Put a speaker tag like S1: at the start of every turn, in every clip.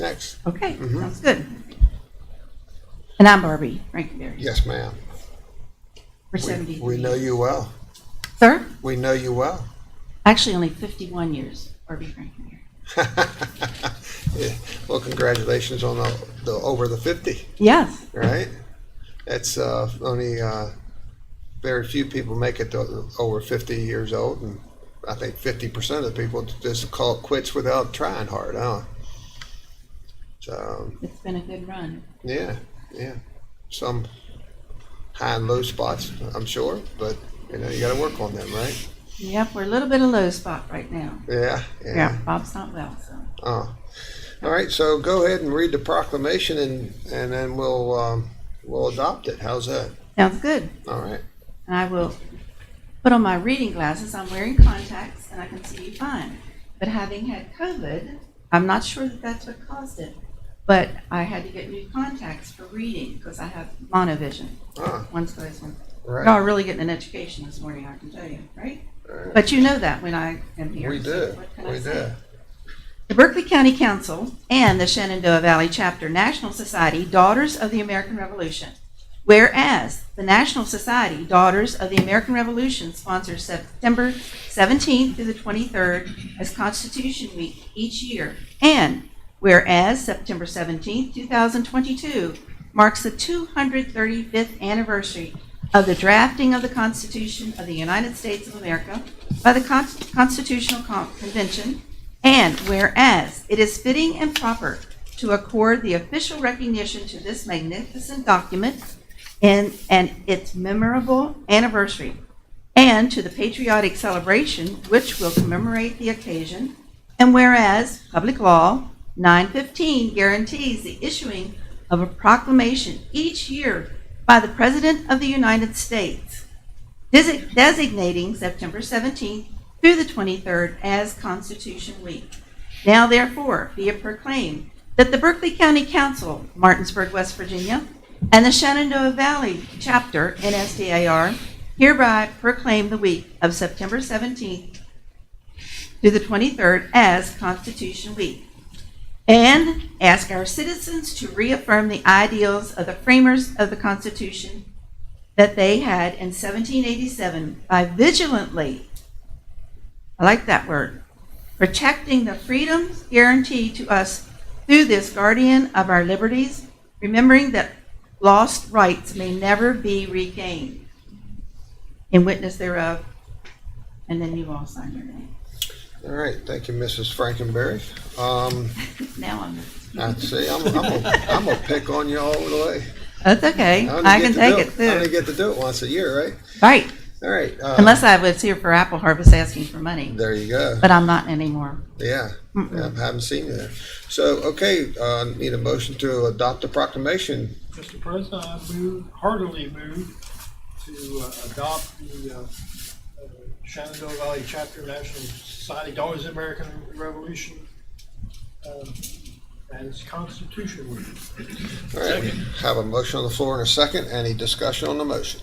S1: Next,
S2: Okay,
S1: Mm-hmm.
S2: sounds good. And I'm Barbie Frankenberry.
S1: yes, ma'am.
S2: For
S1: We,
S2: 70.
S1: we know you well.
S2: Sir?
S1: We know you well.
S2: Actually, only 51 years, Barbie Frankenberry.
S1: Yeah. Well, congratulations on the, the over the fifty,
S2: Yes,
S1: right? That's uh, only uh, very few people make it to over fifty years old, and I think fifty percent of the people just call it quits without trying hard, huh? So
S2: it's been a good run.
S1: yeah, yeah, some high and low spots, I'm sure, but you know you got to work on them, right?
S2: Yep, we're a little bit of low spot right now.
S1: Yeah, yeah.
S2: Yeah, Bob's not well, so.
S1: Oh. All right, so go ahead and read the proclamation and, and then we'll, um, we'll adopt it. How's that?
S2: Sounds good.
S1: All right.
S2: And I will put on my reading glasses. I'm wearing contacts and I can see you fine. But having had COVID, I'm not sure that that's what caused it. But I had to get new contacts for reading because I have monovision.
S1: Ah,
S2: One's closed, one's
S1: all right.
S2: Y'all are really getting an education this morning, I can tell you, right?
S1: Right.
S2: But you know that when I am here.
S1: We
S2: so
S1: do.
S2: what can I
S1: We
S2: say?
S1: do.
S2: The Berkeley County Council and the Shenandoah Valley Chapter National Society Daughters of the American Revolution. Whereas the National Society Daughters of the American Revolution sponsors September 17th through the 23rd as Constitution Week each year. And whereas September 17th, 2022 marks the 235th anniversary of the drafting of the Constitution of the United States of America by the Con- Constitutional Con- Convention and whereas it is fitting and proper to accord the official recognition to this magnificent document and, and its memorable anniversary, and to the patriotic celebration which will commemorate the occasion, and whereas Public Law 915 guarantees the issuing of a proclamation each year by the President of the United States desi- designating September 17th through the 23rd as Constitution Week. Now therefore be it proclaimed that the Berkeley County Council, Martinsburg, West Virginia, and the Shenandoah Valley Chapter, NSDAR, hereby proclaim the week of September 17th through the 23rd as Constitution Week. And ask our citizens to reaffirm the ideals of the framers of the Constitution that they had in 1787 by vigilantly, I like that word, protecting the freedoms guaranteed to us through this guardian of our liberties, remembering that lost rights may never be regained. In witness thereof, and then you all sign your name.
S1: All right. Thank you, Mrs. Frankenberry. Um,
S2: Now I'm,
S1: I see. I'm, I'm, a, I'm a pick on you all the way.
S2: that's okay,
S1: only
S2: I
S1: get
S2: can
S1: to
S2: take
S1: do
S2: it
S1: I only
S2: too.
S1: get to do it once a year, right?
S2: Right,
S1: All right. uh,
S2: unless I was here for Apple Harvest asking for money,
S1: There you go.
S2: but I'm not anymore.
S1: Yeah, I haven't seen you there. So, okay, uh, need a motion to adopt the proclamation.
S3: Mr. President, I move, heartily move to uh, adopt the uh, uh, Shenandoah Valley Chapter National Society Daughters of the American Revolution um, as Constitution Week.
S1: All right, we have a motion on the floor and a second. Any discussion on the motion?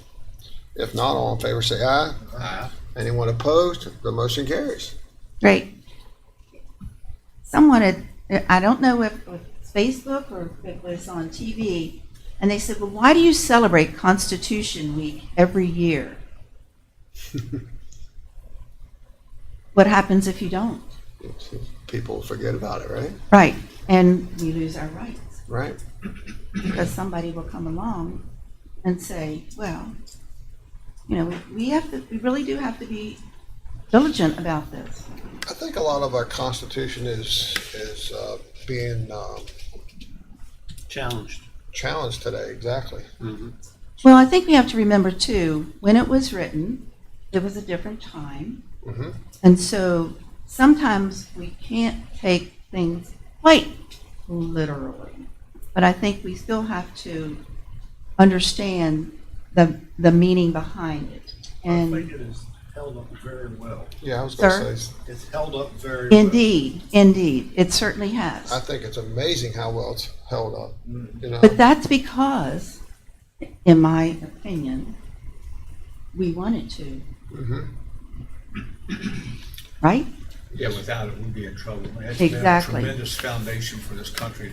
S1: If not, all in favor say aye.
S3: Aye.
S1: Anyone opposed? The motion carries.
S2: Great. Someone had, I don't know if it was Facebook or if it was on TV, and they said, well, why do you celebrate Constitution Week every year? What happens if you don't?
S1: People forget about it, right?
S2: Right, and we lose our rights,
S1: Right?
S2: because somebody will come along and say, well, you know, we- we have to, we really do have to be diligent about this.
S1: I think a lot of our constitution is, is uh, being um,
S4: challenged.
S1: challenged today, exactly.
S2: Well, I think we have to remember too, when it was written, it was a different time.
S1: Mhm.
S2: And so sometimes we can't take things quite literally. But I think we still have to understand the, the meaning behind it.
S3: I think
S2: And
S3: it is held up very well.
S1: Yeah, I was gonna
S2: Sir?
S1: say,
S3: It's held up very well.
S2: indeed, indeed, it certainly has.
S1: I think it's amazing how well it's held up, you know?
S2: But that's because, in my opinion, we wanted to.
S1: Mhm.
S2: Right?
S3: Yeah, without it, we'd be in trouble. That's been a
S5: Exactly.
S3: Tremendous foundation for this country to